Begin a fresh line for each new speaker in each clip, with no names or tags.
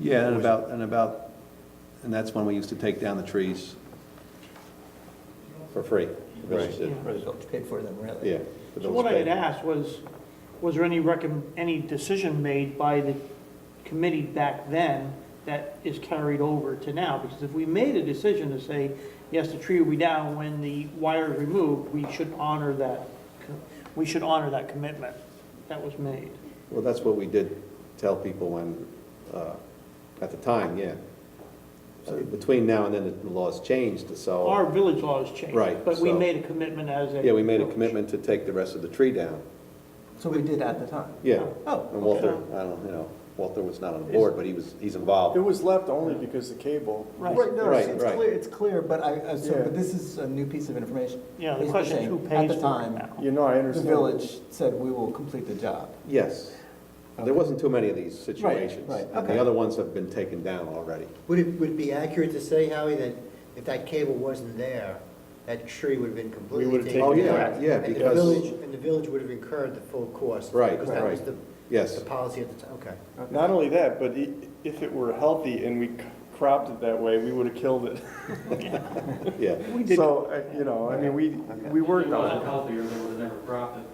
Yeah, and about, and about, and that's when we used to take down the trees for free. The village did.
The village paid for them, really.
Yeah. the
So
village
what I had
paid.
asked was, was there any recom, any decision made by the committee back then that is carried over to now? Because if we made a decision to say, yes, the tree will be down when the wire is removed, we should honor that, co- we should honor that commitment that was made.
Well, that's what we did tell people when, uh, at the time, yeah. So Between now and then, the laws changed,
Our
so,
village laws changed.
Oh. Right,
But we
so-
made a commitment as a.
yeah, we made a
village.
commitment to take the rest of the tree down.
So we did at the time.
Yeah.
Uh,
Oh,
And Walter, I don't, you know, Walter was not on the board, but he was, he's
It
involved.
was left only because the cable.
Right.
Right, no, it's
Right,
it's
right.
clear, it's clear, but I, I- so,
Yeah.
but this is a new piece of information.
Yeah, the
Basically
question is who
saying,
pays for
At the
it
time,
now?
You know, I
the
understand.
village said, we will complete the job.
Yes. There wasn't too many of these situations.
right,
And the
okay.
other ones have been taken down already.
Would it, would it be accurate to say, Howie, that if that cable wasn't there, that tree would have been completely
would've
taken
taken
Oh,
down?
it
yeah, yeah,
And the
because,
village, and the village would have incurred the full cost?
Right,
Because that was
right.
the,
yes.
the policy at the time, okay.
Not only that, but i- if it were healthy and we c- cropped it that way, we would have killed it.
Yeah,
We did,
So, uh, you know, I mean, we, we
If
worked
it wasn't
on
healthier, they would have never cropped it.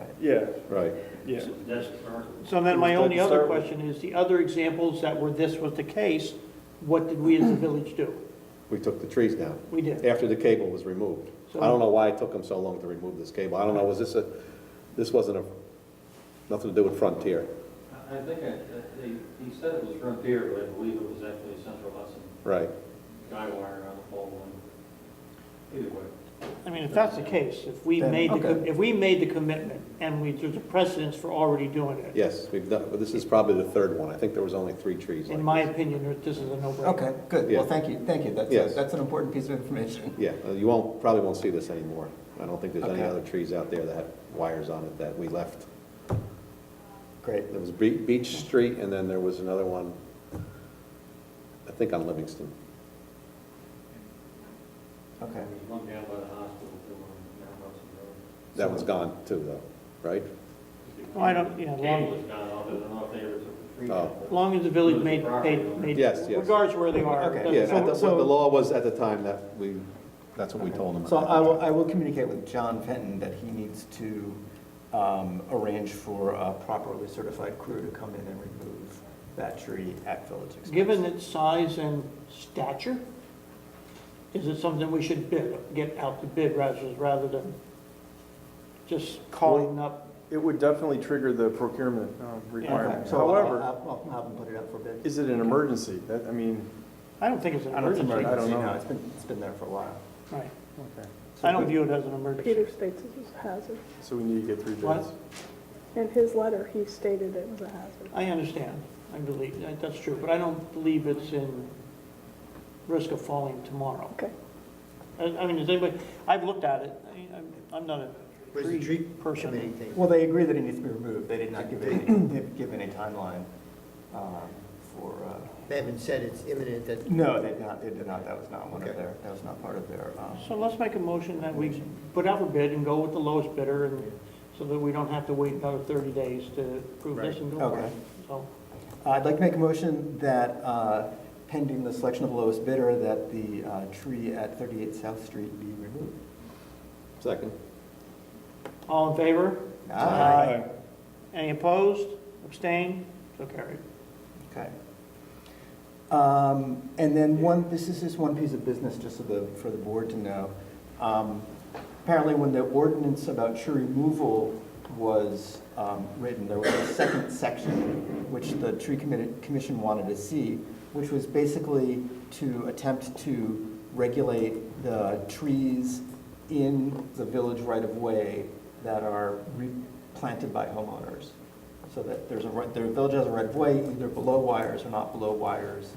it. Yeah,
right.
yeah.
That's our
So then my
Would you like
only
to
other
start with-
question is, the other examples that were this was the case, what did we as a village do?
We took the trees down
We did.
after the cable was removed. I don't know why it took them so long to remove this cable. I don't know, was this a, this wasn't a, nothing to do with Frontier.
I I think I- that they, he said it was Frontier, but I believe it was actually Central Hudson,
Right,
guy wire on the pole and either way.
I mean, if that's the case, if we
Then-
made, the com-
okay.
if we made the commitment and we, there's a precedence for already doing it,
yes, we've done, but this is probably the third one. I think there was only three trees like
in my
this.
opinion, this is a no-brainer.
Okay, good,
Yeah.
well, thank you, thank you, that's,
Yes.
a- that's an important piece of information.
Yeah, uh, you won't, probably won't see this anymore. I don't think there's any
Okay.
other trees out there that have wires on it that we left.
Great.
There was Be- Beach Street, and then there was another one, I think on Livingston.
Okay,
There was one down by the hospital, too, on down Hudson Road.
That one's gone too, though, right?
Well, I don't- yeah,
Cable is gone, although I don't know if they ever took the tree
Oh.
down. but-
As long as the village
Lose the
made,
property
paid,
owner.
made,
Yes, yes.
regardless where they are.
Okay.
doesn't-
Yeah, at the-
so-
what the law was at the time, that we, that's what we told them.
so I will, I will communicate with John Fenton that he needs to, um, arrange for a properly certified crew to come in and remove that tree at village expense.
Given its size and stature, is it something we should bid, get out to bid rather, rather than just calling up?
It would definitely trigger the procurement um, requirement.
So uh, I'll-
However,
I'll, I'll have him put it up for bid.
is it an emergency? That, I mean,
I don't think it's an
I don't think
emergency.
I don't
You
know.
It's been, it's been there for a while.
Right. I don't view it as an emergency.
Peter states it was a hazard.
so we need to get three
What?
bids.
In his letter, he stated it was a hazard.
I understand, I believe, that- that's true, but I don't believe it's in risk of falling tomorrow.
Okay.
I I mean, does anybody, I've looked at it, I mean, I'm- I'm not a
Was the
tree
tree
person.
committee thing?
Well, they agree that it needs to be removed. They did not give any, they've given a timeline um, for, uh,
They haven't said it's imminent that
no, they did not, they did not. That was not one of
Okay.
their, that was not part of their, um,
So let's make a motion that we put out a bid and go with the lowest bidder, and so that we don't have to wait another 30 days to approve this and go for
Right.
it.
Okay.
So,
Uh, I'd like to make a motion that uh, pending the selection of the lowest bidder, that the uh, tree at 38 South Street be removed.
Second.
all in favor?
Aye.
Any opposed, abstained, so carried.
Okay. Um, And then one, this is just one piece of business, just so the, for the board to know. Um, Apparently, when the ordinance about tree removal was um, written, there was a second section, which the tree committee, commission wanted to see, which was basically to attempt to regulate the trees in the village right-of-way that are replanted by homeowners. So that there's a, right- the village has a right of way, either below wires or not below wires.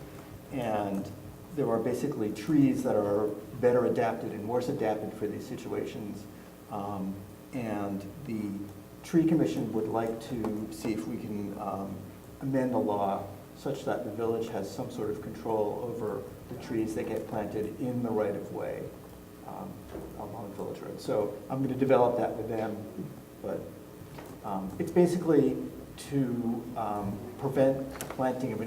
And there are basically trees that are better adapted and worse adapted for these situations. Um, And the tree commission would like to see if we can um, amend the law such that the village has some sort of control over the trees that get planted in the right of way um, along Village Road. So I'm going to develop that with them, but um, It's basically to um, prevent planting of